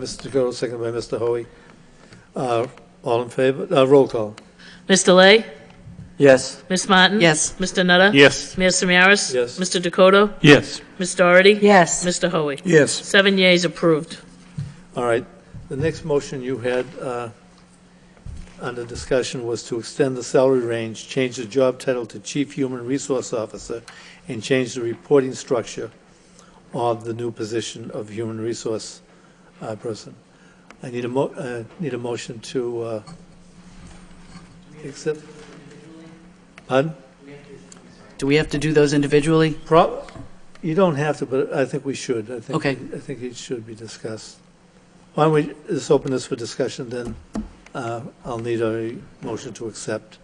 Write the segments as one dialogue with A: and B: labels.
A: Mr. Dakota, second by Mr. Hoy. Uh, All in favor? Uh, Roll call.
B: Ms. Delay?
C: Yes.
B: Ms. Martin?
D: Yes.
B: Mr. Nutter?
C: Yes.
B: Mayor Samaras?
A: Yes.
B: Mr. Dakota?
C: Yes.
B: Ms. Doherty?
D: Yes.
B: Mr. Hoey?
C: Yes.
B: Seven yeas approved.
A: All right. The next motion you had uh, under discussion was to extend the salary range, change the job title to Chief Human Resource Officer, and change the reporting structure of the new position of Human Resource uh, Person. I need a mo, uh, need a motion to uh, accept. Pardon?
D: Do we have to do those individually?
A: Pro- You don't have to, but I think we should. I think-
D: Okay.
A: I think it should be discussed. Why don't we just open this for discussion, then uh, I'll need a motion to accept.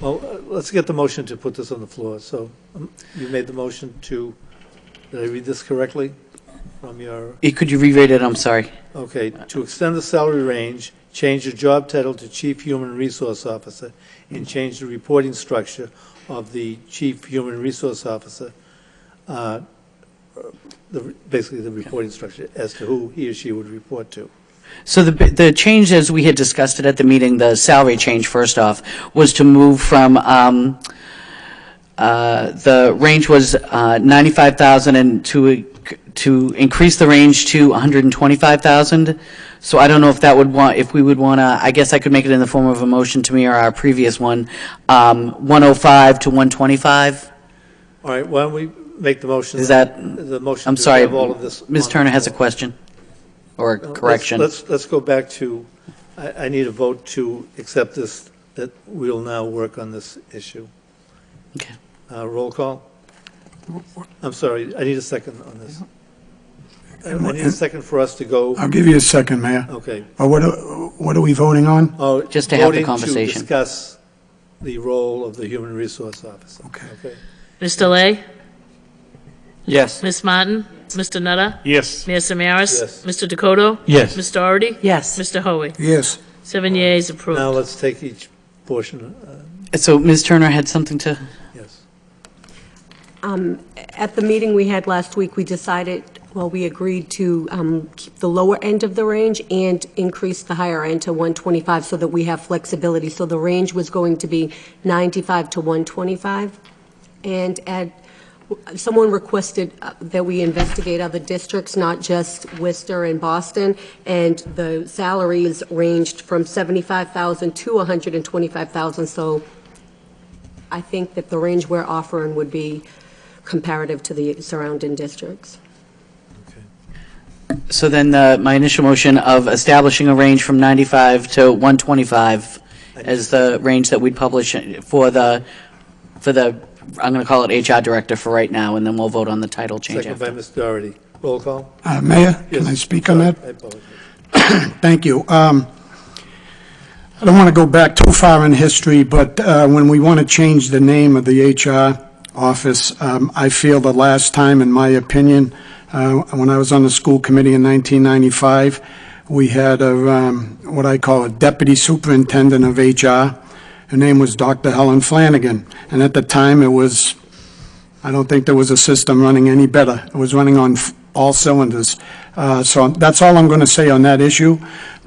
A: Well, uh, let's get the motion to put this on the floor. So um, you made the motion to, did I read this correctly from your,
D: Eh, Could you re-rate it? I'm sorry.
A: okay, to extend the salary range, change the job title to Chief Human Resource Officer, and change the reporting structure of the Chief Human Resource Officer uh, the, basically the reporting structure as to who he or she would report to.
D: So the, b- the change, as we had discussed it at the meeting, the salary change, first off, was to move from, um, uh, the range was, uh, 95,000 and to, to increase the range to 125,000. So I don't know if that would want, if we would want to, I guess I could make it in the form of a motion to me or our previous one, um, 105 to 125?
A: All right, why don't we make the motion?
D: Is that,
A: The motion
D: I'm
A: to
D: sorry,
A: have all of this.
D: Ms.
A: on the
D: Turner has a
A: floor.
D: question or a
A: No, let's-
D: correction.
A: Let's, let's go back to, I, I need a vote to accept this, that we'll now work on this issue.
D: Okay.
A: Uh, roll call? I'm sorry, I need a second on this. I I need a second for us to go,
E: I'll give you a second, Mayor.
A: okay.
E: But what, are- what are we voting on?
A: Oh,
D: Just to have the
A: voting
D: conversation.
A: discuss the role of the human resource officer. Okay.
B: Ms. Delay?
C: Yes.
B: Ms. Martin? Mr. Nutter?
C: Yes.
B: Mayor Samaras?
A: Yes.
B: Mr. Dakota?
C: Yes.
B: Ms. Doherty?
D: Yes.
B: Mr. Hoey?
E: Yes.
B: Seven yeas approved.
A: Now let's take each portion, uh,
D: So Ms. Turner had something to?
A: yes.
F: Um, At the meeting we had last week, we decided, well, we agreed to um, keep the lower end of the range and increase the higher end to 125 so that we have flexibility. So the range was going to be 95 to 125. And at, someone requested uh, that we investigate other districts, not just Worcester and Boston, and the salaries ranged from 75,000 to 125,000. So I think that the range we're offering would be comparative to the surrounding districts.
D: So then, uh, my initial motion of establishing a range from 95 to 125 as the range that we'd publish for the, for the, I'm going to call it HR director for right now, and then we'll vote on the title change
A: Second by
D: after.
A: Ms. Doherty. Roll call?
E: Uh, Mayor, can I
A: Yes.
E: speak on that?
A: I apologize.
E: Thank you. Um, I don't want to go back too far in history, but uh, when we want to change the name of the HR office, um, I feel the last time, in my opinion, uh, when I was on the school committee in 1995, we had a, um, what I call a deputy superintendent of HR. Her name was Dr. Helen Flanagan, and at the time, it was I don't think there was a system running any better. It was running on f- all cylinders. Uh, So that's all I'm going to say on that issue,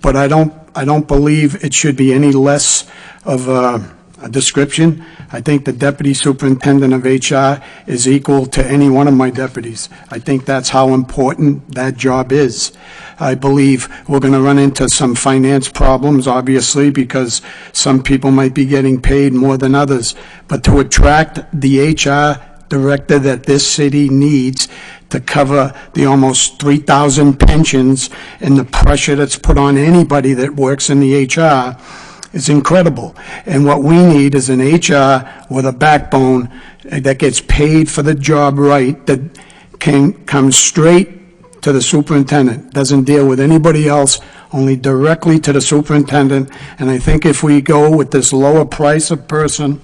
E: but I don't, I don't believe it should be any less of a a description. I think the deputy superintendent of HR is equal to any one of my deputies. I think that's how important that job is. I believe we're going to run into some finance problems, obviously, because some people might be getting paid more than others. But to attract the HR director that this city needs to cover the almost 3,000 pensions and the pressure that's put on anybody that works in the HR is incredible. And what we need is an HR with a backbone that gets paid for the job right, that can come straight to the superintendent, doesn't deal with anybody else, only directly to the superintendent. And I think if we go with this lower price of person,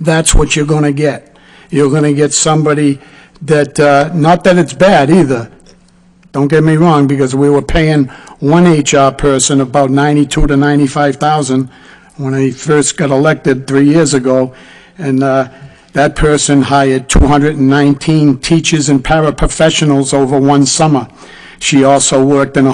E: that's what you're going to get. You're going to get somebody that, uh, not that it's bad either, don't get me wrong, because we were paying one HR person about 92 to 95,000 when I first got elected three years ago, and uh, that person hired 219 teachers and paraprofessionals over one summer. She also worked in a